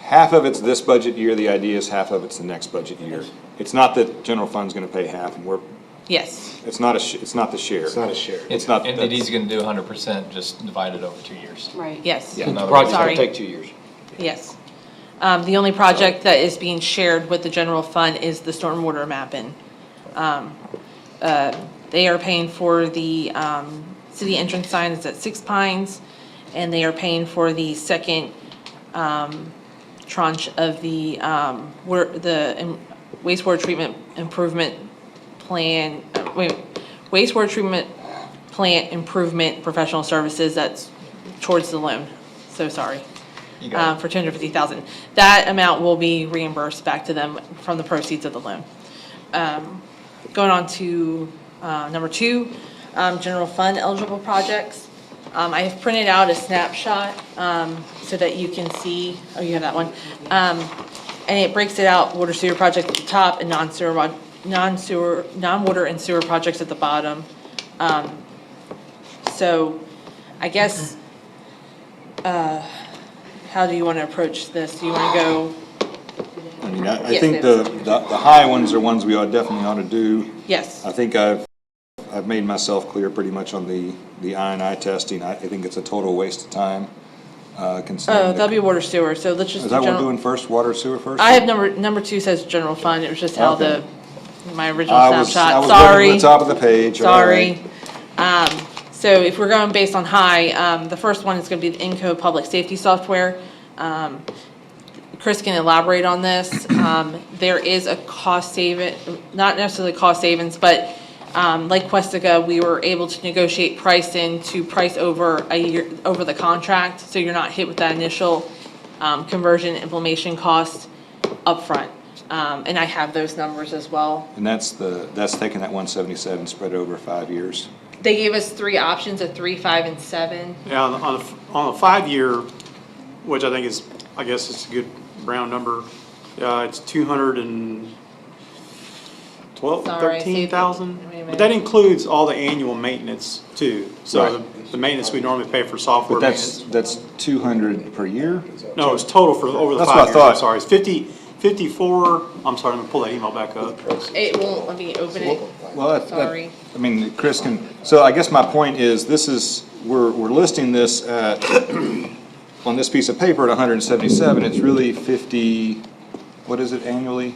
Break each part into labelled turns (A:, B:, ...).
A: half of it's this budget year, the idea is half of it's the next budget year. It's not that general fund's gonna pay half, and we're,
B: Yes,
A: it's not a, sh- it's not the share.
C: It's not a share.
A: It's not,
D: And
A: that's-
D: he's gonna do hundred percent, just divide it over two years.
E: Right.
B: yes,
D: Yeah.
F: The project's
B: Sorry.
F: gonna take two years.
B: yes. Um, the only project that is being shared with the general fund is the stormwater mapping. Um, uh, they are paying for the, um, city entrance signs at Six Pines, and they are paying for the second, um, tranche of the, um, wor the um, wastewater treatment improvement plan, uh, wait, wastewater treatment plant improvement professional services, that's towards the loan, so sorry.
D: You
B: uh,
D: got it.
B: for two hundred fifty thousand. That amount will be reimbursed back to them from the proceeds of the loan. Um, Going on to uh, number two, um, general fund eligible projects. Um, I have printed out a snapshot um, so that you can see, oh, you have that one. Um, And it breaks it out, water sewer project at the top and non-sewer, mod- non-sewer, non-water and sewer projects at the bottom. Um, So I guess uh, how do you want to approach this? Do you want to go,
A: I mean, I, I
B: Yes,
A: think
B: they-
A: the, the the high ones are ones we ought, definitely ought to do.
B: yes,
A: I think I've, I've made myself clear pretty much on the, the I and I testing. I, I think it's a total waste of time, uh, considering.
B: oh,
A: the-
B: that'll be water sewer, so let's just.
A: Is that what we're
B: general-
A: doing first, water sewer first?
B: I have number, number two says general fund, it was just how the,
A: Okay.
B: my
A: I
B: original
A: was- I
B: snapshot,
A: was looking for
B: sorry,
A: the top of the page. all
B: sorry.
A: right.
B: Um, So if we're going based on high, um, the first one is gonna be the Inco Public Safety Software. Um, Chris can elaborate on this, um, there is a cost saving, not necessarily cost savings, but, um, like Questica, we were able to negotiate pricing to price over a year, over the contract, so you're not hit with that initial, um, conversion implementation cost upfront. Um, and I have those numbers as well.
A: And that's the, that's taking that one seventy-seven spread over five years.
B: They gave us three options, a three, five, and seven.
G: Yeah, on, on a- on a five-year, which I think is, I guess it's a good round number, uh, it's two hundred and twelve,
B: Sorry, I saved it.
G: thirteen thousand?
B: Wait a
G: But that
B: minute.
G: includes all the annual maintenance too, so
A: Right.
G: the- the maintenance we normally pay for software
A: But that's,
G: maintenance.
A: that's two hundred per year?
G: No, it's total for, over the
A: That's what I
G: five years, I'm
A: thought.
G: sorry, it's fifty, fifty-four, I'm sorry, I'm gonna pull that email back up.
B: It won't let me open it.
A: Well, that's, that-
B: Sorry.
A: I mean, Chris can, so I guess my point is, this is, we're, we're listing this at, on this piece of paper at hundred and seventy-seven, it's really fifty, what is it annually?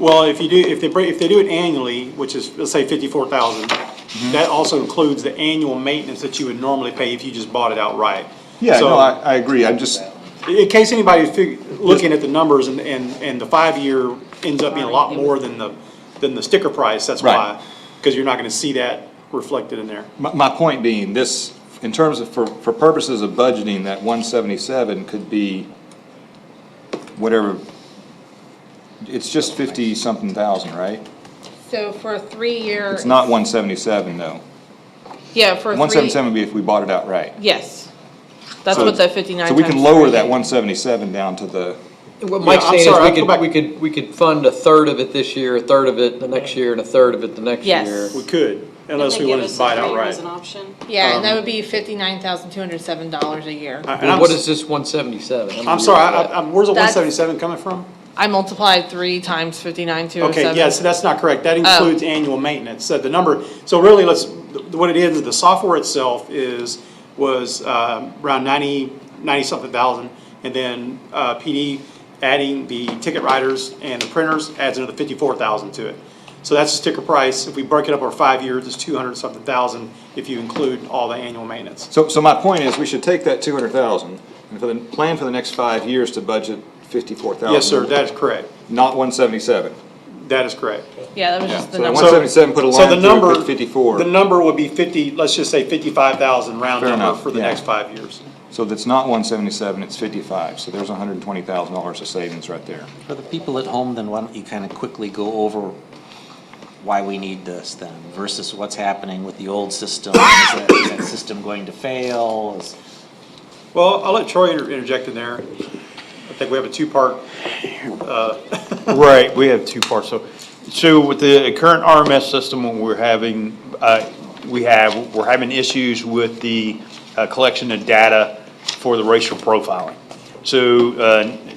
G: Well, if you do, if they break, if they do it annually, which is, let's say fifty-four thousand,
A: Mm-hmm.
G: that also includes the annual maintenance that you would normally pay if you just bought it outright.
A: Yeah,
G: So,
A: no, I, I agree, I'm just,
G: In case anybody's fig, looking at the numbers and, and, and the five-year ends up being a lot more than the, than the sticker price, that's
A: Right.
G: why. Cause you're not gonna see that reflected in there.
A: my, my point being, this, in terms of, for, for purposes of budgeting, that one seventy-seven could be whatever, it's just fifty-something thousand, right?
B: So for a three-year.
A: It's not one seventy-seven, though.
B: Yeah, for a three.
A: One seventy-seven would be if we bought it outright.
B: Yes. That's
A: So-
B: what the fifty-nine.
A: So we can
B: times
A: lower
B: three-
A: that one seventy-seven down to the,
F: What Mike's
G: I'm
F: saying
G: sorry, I
F: is
G: have to
F: we
G: go back.
F: could, we could, we could fund a third of it this year, a third of it the next year, and a third of it the next
B: Yes.
F: year.
G: We could, unless
E: They
G: we
E: give
G: wanted
E: us
G: to buy it
E: a three
G: outright.
E: As an option.
B: Yeah,
A: um,
B: and that would be fifty-nine thousand, two hundred and seven dollars a year.
G: I- and
F: Well,
G: I'm
F: what
G: s-
F: is this one seventy-seven?
G: I'm sorry, I, I- I'm- where's the one
B: That's-
G: seventy-seven coming from?
B: I multiplied three times fifty-nine, two oh seven.
G: Okay, yes, that's not correct. That includes annual maintenance. So the number, so really, let's, th- what it is, the software itself is, was um, around 90, 90-something thousand. And then uh, PD adding the ticket writers and the printers adds another 54,000 to it. So that's the sticker price. If we break it up over five years, it's 200-something thousand if you include all the annual maintenance.
A: so, so my point is, we should take that two hundred thousand, and for the, plan for the next five years to budget fifty-four thousand.
G: Yes, sir, that is correct.
A: Not one seventy-seven.
G: That is correct.
B: Yeah, that was just the
A: So that
B: number.
A: one- 177, put a
G: So
A: line
G: the
A: through it,
G: number-
A: put 54.
G: The number would be 50, let's just say 55,000 round
A: Fair
G: number
A: enough,
G: for the
A: yeah.
G: next five years.
A: So that's not one seventy-seven, it's fifty-five, so there's hundred and twenty thousand dollars of savings right there.
H: For the people at home, then why don't you kind of quickly go over why we need this then versus what's happening with the old system? Is that is that system going to fail? Is-
G: Well, I'll let Troy inter- interject in there. I think we have a two-part,
I: Right, we have two parts, so, so with the current RMS system, we're having, uh, we have, we're having issues with the, uh, collection of data for the racial profiling. So, uh,